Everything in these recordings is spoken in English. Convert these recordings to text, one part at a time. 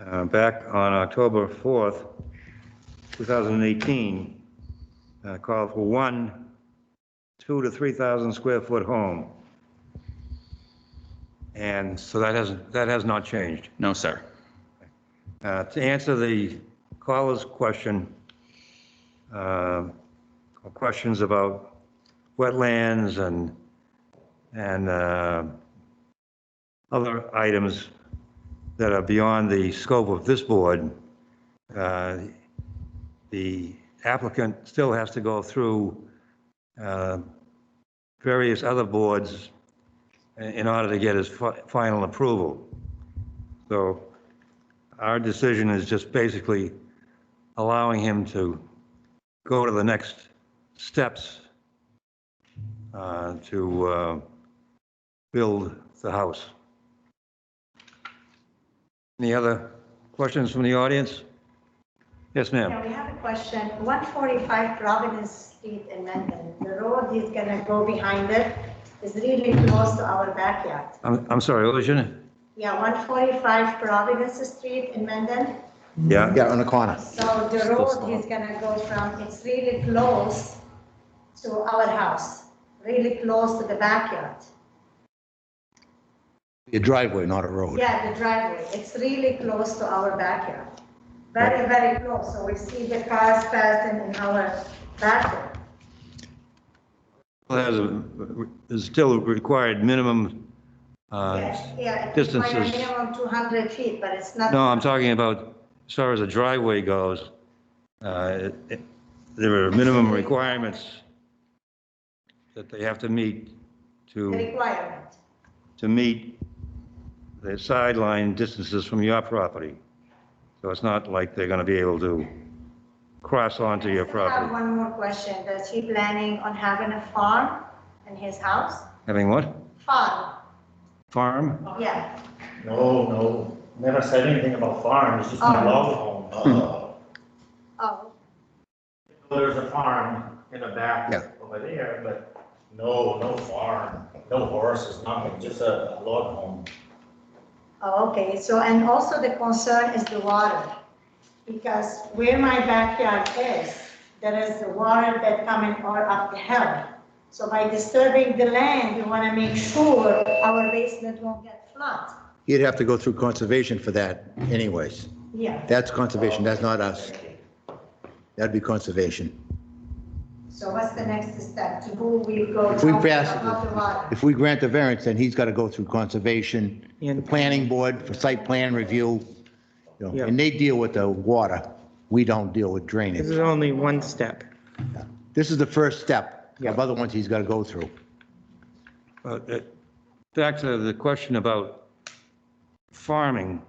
uh, back on October 4th, 2018, uh, called for one, two to 3,000 square foot home. And so that hasn't, that has not changed. No, sir. Uh, To answer the caller's question, uh, or questions about wetlands and, and uh, other items that are beyond the scope of this board, uh, the applicant still has to go through uh, various other boards in in order to get his fi- final approval. So our decision is just basically allowing him to go to the next steps uh, to uh, build the house. Any other questions from the audience? Yes, Yeah, ma'am. we have a question. 145 Providence Street in Mendon, the road is gonna go behind it, is really close to our backyard. I'm, I'm sorry, what was your name? Yeah, 145 Providence Street in Mendon, Yeah. Yeah, on the corner. so the road is gonna go from, it's really close to our house, really close to the backyard. Your driveway, not a road. Yeah, the driveway, it's really close to our backyard, very, very close, so we see the cars passing in our backyard. Well, There's, a- there's still required minimum, uh, Yeah, yeah, it's distances. quite a minimum 200 feet, but it's not. no, I'm talking about, as far as the driveway goes, uh, it- it- there are minimum requirements that they have to meet The to. requirement. to meet the sideline distances from your property. So it's not like they're going to be able to cross onto your I have property. one more question. Does he planning on having a farm in his house? Having what? Farm, Farm? yeah. No, no, never said anything about farm, it's just my Oh. log home. Uh-huh. Uh, Oh, There's a farm in the back Yeah. over there, but no, no farm, no horses, nothing, just a a log home. oh, okay. So, and also the concern is the water. Because where my backyard is, there is the water that coming all up the hill. So by disturbing the land, we want to make sure our basement won't get flooded. You'd have to go through conservation for that anyways. Yeah, That's conservation, that's not us. That'd be conservation. so what's the next step? To who we go? If we talk pass, About the water. if we grant the variance, then he's got to go through conservation, the planning board for site plan review, you know, and they deal with the water. We don't deal with This drainage. is only one step. This is the first step Yeah. of other ones he's got to go through. But, uh, Back to the question about farming,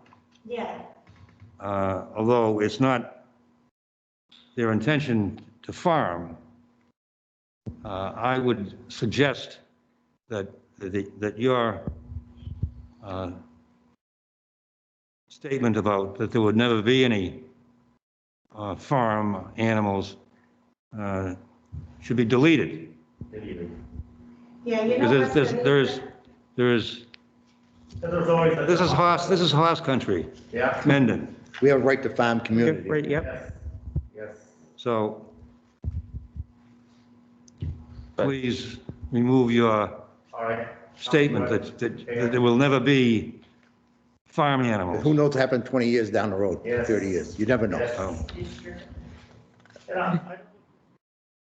Yeah, uh, although it's not their intention to farm, uh, I would suggest that, that that your uh, statement about that there would never be any uh, farm animals uh, should be deleted. Deleted. yeah, you know. Because there's, what's the there's- there's, there's, And there's always. a- this is horse, this is horse country, Yeah, Mendon. We have a right to farm community. Right, yep. yes, yes. So But- please remove your All right. statement that, that that there will never be farm Who animals. knows what happened 20 years down the road, Yes. 30 years? You never know. Yes. Oh. And I-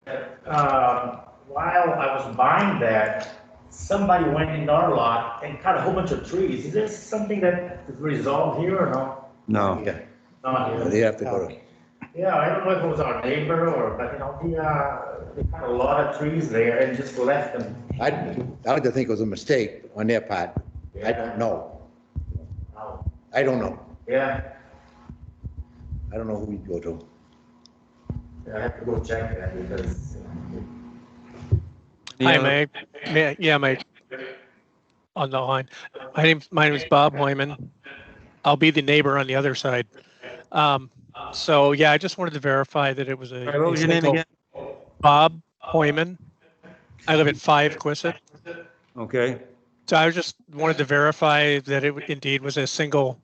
I- uh, While I was buying that, somebody went in our lot and cut a whole bunch of trees. Is this something that is resolved here or no? No. Yeah, Not here. they have to go to. Yeah, I don't know if it was our neighbor or, but you know, he, uh, they cut a lot of trees there and just left them. I, I like to think it was a mistake on their part. I don't know. Oh, I don't know. Yeah, I don't know who we'd go to. I have to go check that because. Any Hi, other- Mike. Yeah, yeah, Mike. On the line. My name, my name is Bob Hoyman. I'll be the neighbor on the other side. Um, so yeah, I just wanted to verify that it was a. All right, What was your name again? Bob Hoyman. I live at five Quissett. Okay. So I was just wanted to verify that it indeed was a single